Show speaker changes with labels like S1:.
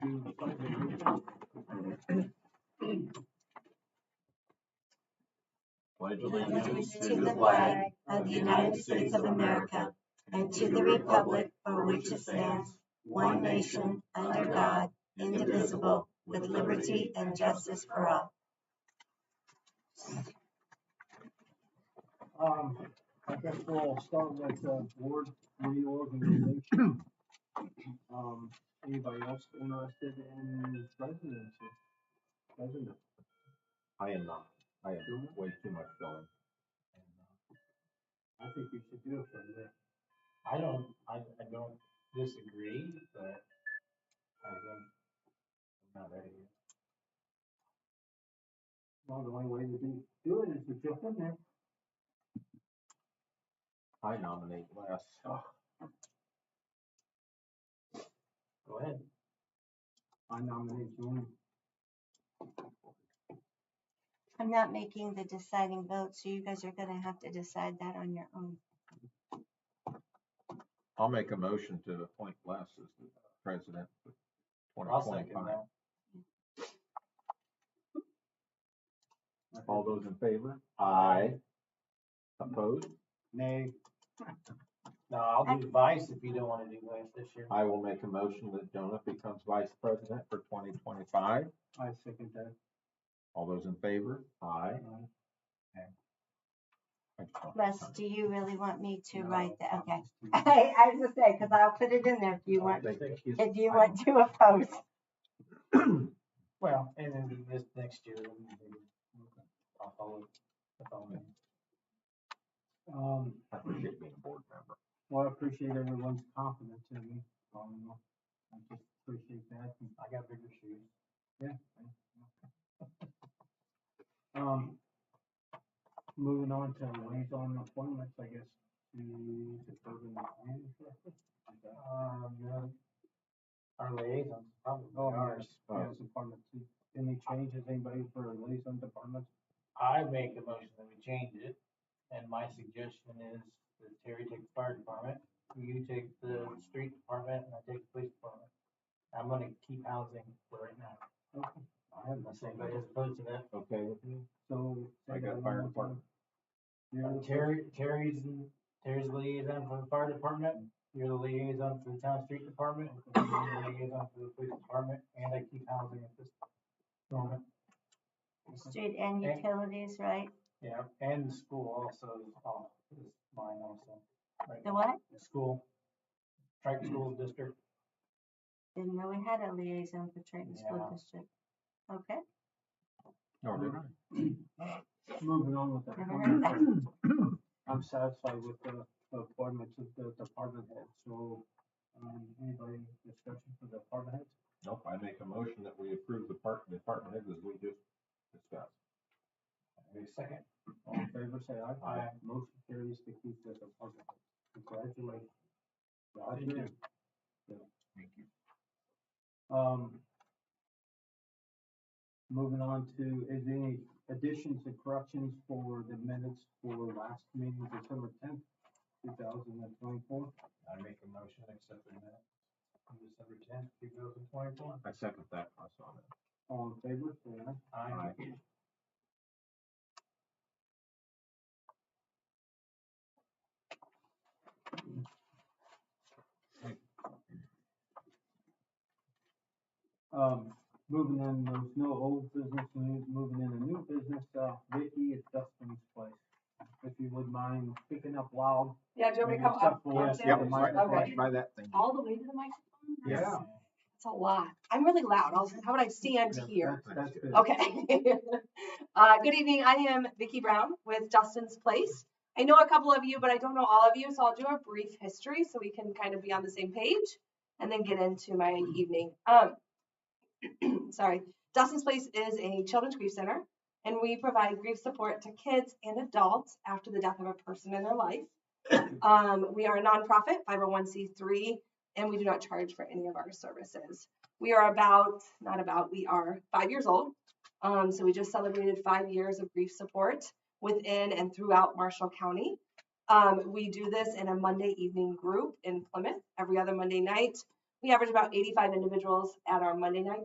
S1: pledge allegiance to the flag of the United States of America and to the republic for which it stands, one nation, under God, indivisible, with liberty and justice for all.
S2: Um, I guess we'll start with, uh, board reorganization. Um, anybody else interested in presidency? President,
S3: I am not. I am
S2: Mhm.
S3: way too much going.
S2: I think we should do it for the next.
S4: I don't, I, I don't disagree, but I think I'm not ready yet.
S2: Well, the only way to do, do it is to jump in there.
S3: I nominate Les.
S4: Go ahead.
S2: I nominate Joanne.
S1: I'm not making the deciding vote, so you guys are gonna have to decide that on your own.
S3: I'll make a motion to appoint Les as the president for
S4: I'll second
S3: 2025.
S4: that.
S3: All those in favor? Aye. Opposed?
S2: Nay,
S4: No, I'll do vice if you don't wanna do vice this year.
S3: I will make a motion that Jonah becomes vice president for 2025.
S2: I second that.
S3: All those in favor? Aye.
S2: Uh,
S3: I just want-
S1: Les, do you really want me to
S2: no,
S1: write that?
S2: I'm
S1: Okay.
S2: just kidding.
S1: I, I was just saying, cause I'll put it in there if you want,
S3: They think he's-
S1: if you want to oppose.
S4: Well, and then this next year, then maybe I'll follow, I'll follow.
S2: Um,
S3: I appreciate being a board member.
S2: well, I appreciate everyone's confidence in me. Um, I just appreciate that. and
S4: I got bigger shoes.
S2: Um, moving on to liaison appointments, I guess, to the urban planning. director.
S4: Um, yeah. Our liaisons, probably
S2: Oh,
S4: ours.
S2: yes, yes, department two. Any changes, anybody for liaison departments?
S4: I make a motion that we change it, and my suggestion is that Terry take the fire department, you take the street department, and I take the police department. I'm gonna keep housing for right now,
S2: Okay, I have
S4: unless
S2: nothing,
S4: anybody is opposed to that.
S3: Okay with you?
S2: so.
S3: I
S2: anybody want
S3: got fire
S2: to-
S3: department.
S2: You're the
S4: Terry, Terry's, Terry's the liaison for the fire department, you're the liaison for the town street department, and you're the liaison for the police department, and I keep housing at this moment.
S1: Street and
S4: Okay.
S1: utilities, right?
S4: Yeah, and the school also is off, is mine also. right
S1: The
S4: now.
S1: what?
S4: The School, Triton
S2: Hmm.
S4: School District.
S1: Didn't know we had a liaison for Triton School
S4: Yeah.
S1: District. Okay,
S3: No, did I?
S2: Moving on with the
S1: Never heard that.
S2: appointments. I'm satisfied with the the appointments of the department heads, so, um, anybody discussion for the department heads?
S3: Nope, I make a motion that we approve the park, department heads as we just discussed.
S4: Wait a second.
S2: All in favor, say aye.
S3: Aye.
S2: Motion carries to keep this appointment. Congratulations.
S4: Thank you.
S3: Thank you.
S2: Um, moving on to, is there any additions or corrections for the minutes for last meeting, December tenth, two thousand and twenty-four?
S4: I make a motion accepting that on December tenth, two thousand twenty-one.
S3: I second that. I saw that.
S2: All in favor, say aye.
S4: I,
S2: Um, moving in, there's no old business, new- moving in a new business, uh, Vicky at Dustin's place. If you would mind picking up loud.
S5: Yeah, do you want me to come
S2: except
S5: up?
S2: for-
S5: up
S2: Yes,
S5: there?
S2: yeah,
S3: Yep,
S2: right-
S5: Okay.
S3: by that thing.
S5: All the way to the microphone?
S3: Yeah.
S5: That's- That's a lot. I'm really loud. I was like, how would I stand
S2: Yeah,
S5: here?
S2: that's- That's good.
S5: Okay. Uh, good evening. I am Vicki Brown with Dustin's Place. I know a couple of you, but I don't know all of you, so I'll do a brief history so we can kind of be on the same page and then get into my evening. Um, sorry. Dustin's Place is a children's grief center, and we provide grief support to kids and adults after the death of a person in their life. Um, we are a nonprofit, 501c3, and we do not charge for any of our services. We are about, not about, we are five years old. Um, so we just celebrated five years of grief support within and throughout Marshall County. Um, we do this in a Monday evening group in Plymouth every other Monday night. We average about 85 individuals at our Monday night